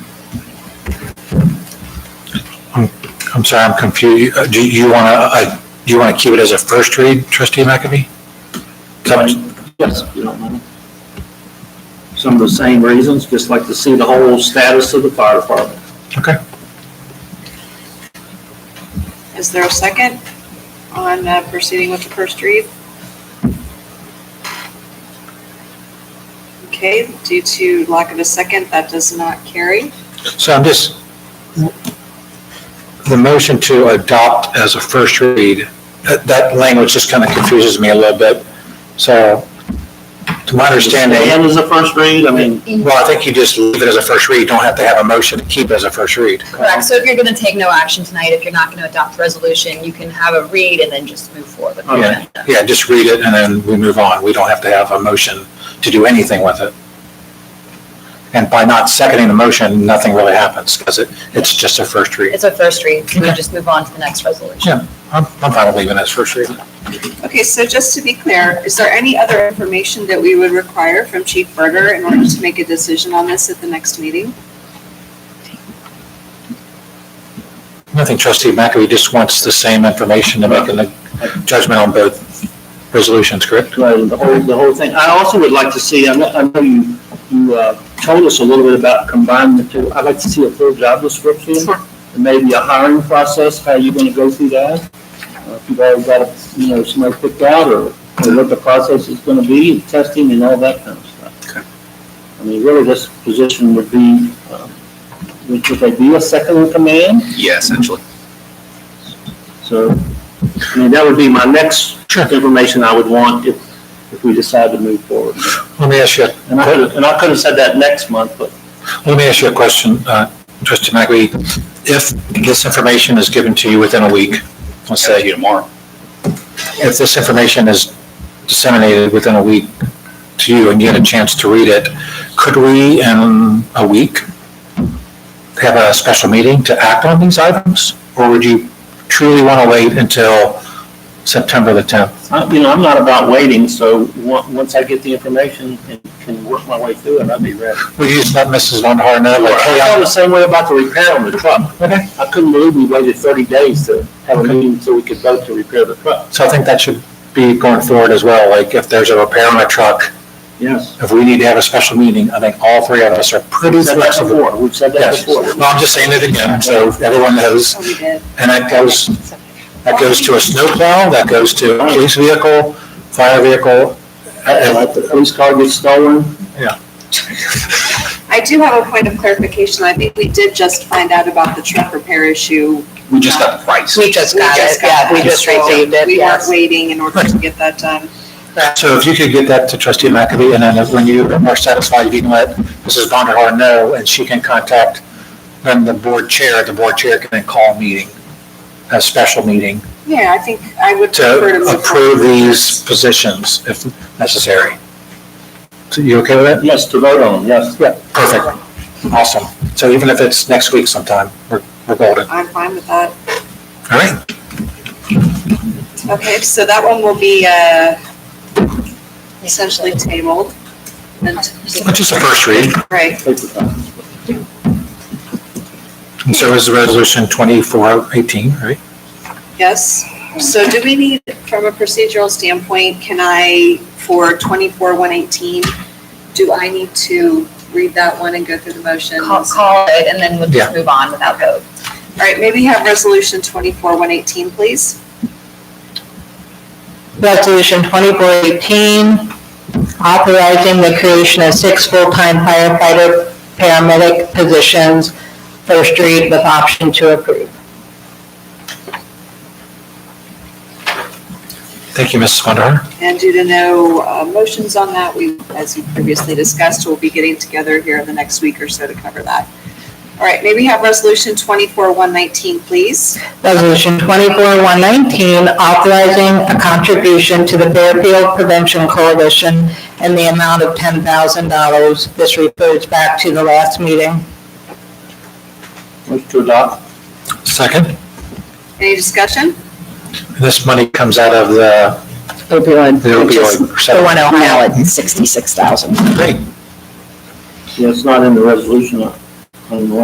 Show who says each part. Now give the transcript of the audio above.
Speaker 1: I'm, I'm sorry, I'm confused. Uh, Do you want to, do you want to keep it as a first read, trustee McAfee? Come-
Speaker 2: Yes, if you don't mind. Some of the same reasons, just like to see the whole status of the fire department.
Speaker 1: Okay.
Speaker 3: Is there a second on uh, proceeding with the first read? Okay, due to lack of a second, that does not carry.
Speaker 1: So I'm just, the motion to adopt as a first read, that, that language just kind of confuses me a little bit. So to my understanding,
Speaker 2: And as a first read, I mean,
Speaker 1: well, I think you just leave it as a first read, don't have to have a motion to keep it as a first read.
Speaker 4: Correct, so if you're gonna take no action tonight, if you're not gonna adopt the resolution, you can have a read and then just move forward with the
Speaker 2: Okay.
Speaker 4: agenda.
Speaker 1: Yeah, just read it and then we move on. We don't have to have a motion to do anything with it. And by not seconding the motion, nothing really happens because it, it's just a first read.
Speaker 4: It's a first read, can we
Speaker 1: Okay.
Speaker 4: just move on to the next resolution?
Speaker 1: Yeah. I'm, I'm fine with leaving it as first read.
Speaker 3: Okay, so just to be clear, is there any other information that we would require from Chief Berger in order to make a decision on this at the next meeting?
Speaker 1: I think trustee McAfee just wants the same information to make a judgment on both resolutions, correct?
Speaker 2: uh, the whole, the whole thing. I also would like to see, I know, I know you, you, uh, told us a little bit about combining the two. I'd like to see a full job description. And maybe a hiring process, how you're gonna go through that. Uh, If you've already got, you know, somebody picked out or, or what the process is gonna be, and testing and all that kind of stuff. I mean, really, this position would be, um, would would they be a second in command?
Speaker 5: Yeah, essentially.
Speaker 2: So, I mean, that would be my next
Speaker 1: Sure.
Speaker 2: information I would want if, if we decide to move forward.
Speaker 1: Let me ask you,
Speaker 2: And I could, and I could have said that next month, but
Speaker 1: let me ask you a question, uh, trustee McAfee. If this information is given to you within a week, let's
Speaker 5: Say
Speaker 1: say,
Speaker 5: you tomorrow.
Speaker 1: if this information is disseminated within a week to you and you had a chance to read it, could we in a week have a special meeting to act on these items? Or would you truly want to wait until September the 10th?
Speaker 2: I, you know, I'm not about waiting, so on- once I get the information and can work my way through it, I'll be ready.
Speaker 1: Would you just let Mrs. Von Horn know, like,
Speaker 2: I
Speaker 1: hey,
Speaker 2: felt
Speaker 1: I'm
Speaker 2: the same way about the repair on the truck.
Speaker 1: Okay.
Speaker 2: I couldn't believe we waited thirty days to have a meeting so we could vote to repair the truck.
Speaker 1: So I think that should be going forward as well, like if there's a repair on a truck,
Speaker 2: Yes.
Speaker 1: if we need to have a special meeting, I think all three of us are pretty
Speaker 2: We've said that
Speaker 1: flexible.
Speaker 2: before, we've said that
Speaker 1: Yes,
Speaker 2: before.
Speaker 1: well, I'm just saying it again, so everyone knows,
Speaker 3: Oh, we did.
Speaker 1: and that goes, that goes to a snowplow, that goes to a police vehicle, fire vehicle.
Speaker 2: Uh,
Speaker 1: uh,
Speaker 2: Like the police car gets stolen,
Speaker 3: I do have a point of clarification. I think we did just find out about the truck repair issue.
Speaker 5: We just got the price.
Speaker 4: We just got it, yeah, we just
Speaker 3: So
Speaker 4: received it,
Speaker 3: We weren't
Speaker 4: yes.
Speaker 3: waiting in order to get that done.
Speaker 1: uh, So if you could get that to trustee McAfee, and then when you are satisfied, you can let Mrs. Vonderhaar know, and she can contact then the board chair, the board chair can then call a meeting, a special meeting,
Speaker 3: Yeah, I think I would prefer to
Speaker 1: to
Speaker 3: move
Speaker 1: approve
Speaker 3: forward.
Speaker 1: these positions if necessary. So you okay with that?
Speaker 2: yes, to vote on, yes.
Speaker 1: Yeah. Perfect. Awesome. So even if it's next week sometime, we're, we're golden.
Speaker 3: I'm fine with that.
Speaker 1: All right?
Speaker 3: Okay, so that one will be uh, essentially tabled. And,
Speaker 1: Which is the first read.
Speaker 3: right,
Speaker 2: Take the time.
Speaker 1: And so is the resolution 2418, right?
Speaker 3: yes. So do we need, from a procedural standpoint, can I, for 24-118, do I need to read that one and go through the motions?
Speaker 4: Call, call it and then we'll just
Speaker 1: Yeah.
Speaker 4: move on without vote.
Speaker 3: All right, maybe have resolution 24-118, please.
Speaker 6: Resolution 2418, authorizing the creation of six full-time firefighter paramedic positions, first read with option to approve.
Speaker 1: Thank you, Mrs. Vonderhaar.
Speaker 3: And due to no uh, motions on that, we, as we previously discussed, we'll be getting together here in the next week or so to cover that. All right, maybe have resolution 24-119, please.
Speaker 6: Resolution 24-119, authorizing a contribution to the Fairfield Prevention Coalition in the amount of $10,000. This refers back to the last meeting.
Speaker 2: Motion to adopt.
Speaker 1: Second,
Speaker 3: Any discussion?
Speaker 1: this money comes out of the
Speaker 6: Opioid.
Speaker 1: the opioid.
Speaker 6: The one
Speaker 1: settlement.
Speaker 6: in Ohio at 66000
Speaker 1: Great.
Speaker 2: Yeah, it's not in the resolution, uh, on the